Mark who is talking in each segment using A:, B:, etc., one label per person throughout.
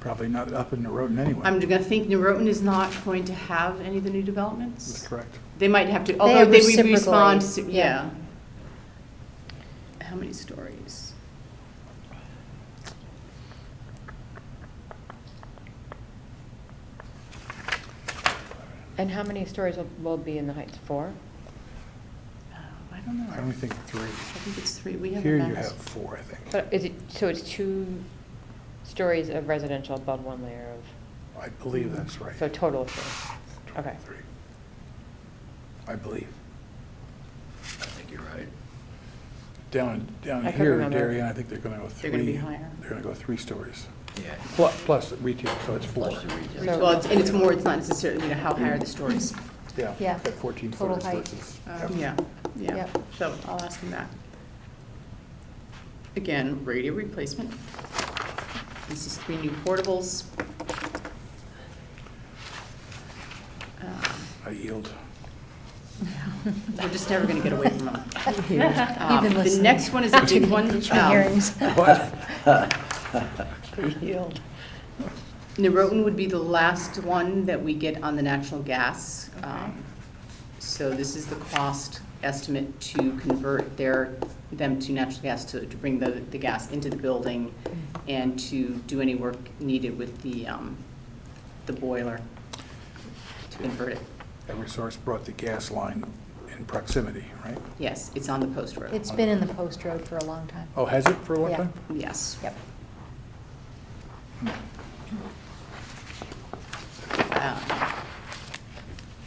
A: probably not up in Norotan anyway.
B: I'm going to think Norotan is not going to have any of the new developments.
A: That's correct.
B: They might have to, although they would
C: reciprocally,
B: respond, to-
C: yeah.
B: yeah. How many stories?
C: And how many stories will, will be in the Heights? Four?
B: Oh, I don't know.
A: I only think three.
B: I think it's three. We have a
A: Here you
B: max.
A: have four, I think.
C: But is it, so it's two stories of residential above one layer of,
A: I believe that's right.
C: so total of four? Okay.
A: Three. I believe.
D: I think you're right.
A: Down, down
C: I couldn't
A: here in
C: remember.
A: Darien, I think they're going to go three.
B: They're gonna be higher.
A: They're going to go three stories.
D: Yeah.
A: Plus, plus retail, so it's four.
D: Plus the retail.
C: So-
B: Well, it's- and it's more, it's not necessarily, you know, how high are the stories?
A: Yeah.
E: Yeah.
A: At 14
E: Total
A: footers
E: height.
A: versus.
B: Uh, Yeah, yeah.
E: Yep.
B: So I'll ask him that. Again, radio replacement. This is three new portables. Um,
A: I yield.
B: We're just never going to get away from them.
E: You've
B: Um,
E: been
B: The
E: listening
B: next one is a big one.
E: to
B: um,
E: hearings.
A: What?
B: Norotan would be the last one that we get on the natural gas. Um, So this is the cost estimate to convert their, them to natural gas, to, to bring the, the gas into the building and to do any work needed with the, um, the boiler to convert it.
A: Eversource brought the gas line in proximity, right?
B: Yes, it's on the post road.
E: It's been in the post road for a long time.
A: Oh, has it for a long
E: Yeah.
A: time?
B: Yes.
E: Yep.
B: Uh,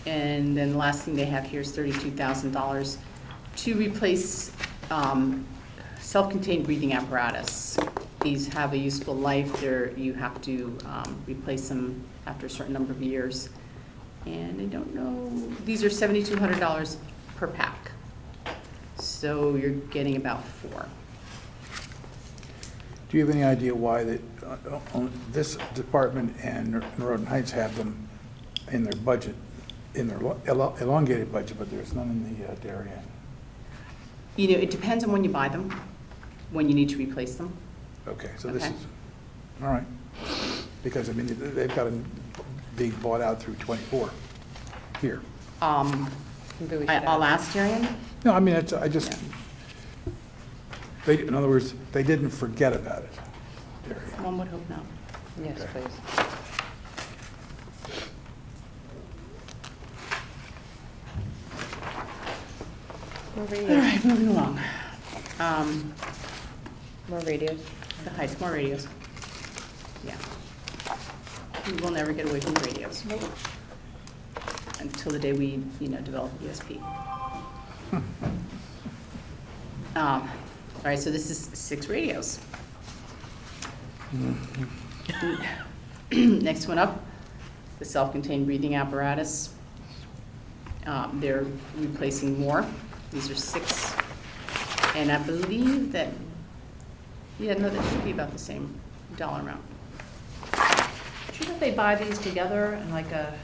B: And then the last thing they have here is thirty-two thousand dollars to replace um, self-contained breathing apparatus. These have a useful life, they're, you have to um, replace them after a certain number of years. And I don't know, these are seventy-two hundred dollars per pack. So you're getting about four.
A: Do you have any idea why that, uh, on- this department and Norton Heights have them in their budget, in their lo- elo- elongated budget, but there's none in the uh, Darien?
B: You know, it depends on when you buy them, when you need to replace them.
A: Okay, so this
B: Okay.
A: is, all right. Because, I mean, they- they've got them being bought out through '24 here.
B: Um,
C: Maybe we should
B: I- I'll
C: add-
B: ask Darian.
A: No, I mean, it's, I just,
B: Yeah.
A: they, in other words, they didn't forget about it, Darien.
B: One would hope not.
C: Yes,
A: Okay.
C: please. More
B: All
C: radios,
B: right, moving along. Um,
C: more radios.
B: The heights, more radios. Yeah. We will never get away from radios. Until the day we, you know, develop ESP. Um, All right, so this is six radios. Next one up, the self-contained breathing apparatus. Um, They're replacing more. These are six. And I believe that, yeah, no, that should be about the same dollar amount.
F: Shouldn't they buy these together in like a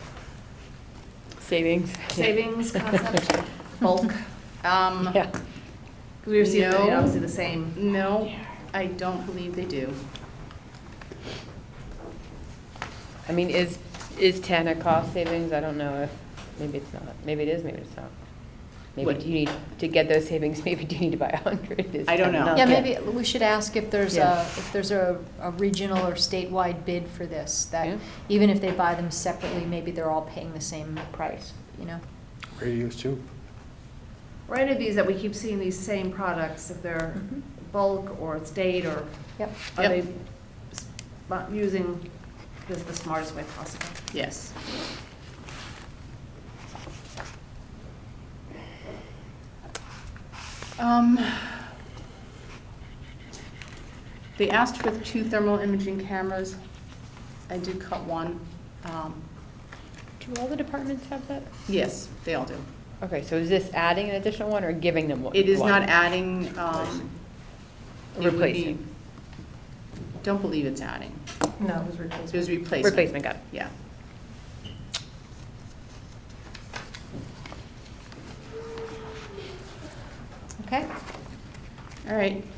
C: Savings.
F: savings concept, bulk?
B: Um,
C: Yeah.
F: We receive, you know,
B: No.
F: obviously the same.
B: No, I don't believe they do.
C: I mean, is, is ten a cost savings? I don't know if, maybe it's not. Maybe it is, maybe it's not. Maybe
B: What-
C: do you need, to get those savings, maybe do you need to buy a hundred? Is
B: I don't
C: 10
B: know.
C: enough?
E: Yeah, maybe we should ask if there's
C: Yeah.
E: a, if there's a, a regional or statewide bid for this,
C: Yeah.
E: that even if they buy them separately, maybe they're all paying the same price, you know?
A: Radios too.
F: Or any of these that we keep seeing these same products, if they're
B: Mm-hmm.
E: Mhm.
F: bulk or it's date or
E: Yep.
F: are
B: Yep.
F: they s- bu- using this the smartest way possible?
B: Yes. Um, They asked for two thermal imaging cameras. I did cut one. Um,
C: Do all the departments have that?
B: Yes, they all do.
C: Okay, so is this adding an additional one or giving them one?
B: It is not
C: one?
B: adding, um. it would be-
C: Replacing.
B: Don't believe it's adding.
F: No, it was
B: It was
F: replacement.
B: replacement.
C: Replacement, got it.
B: Yeah.
E: Okay,
B: All right,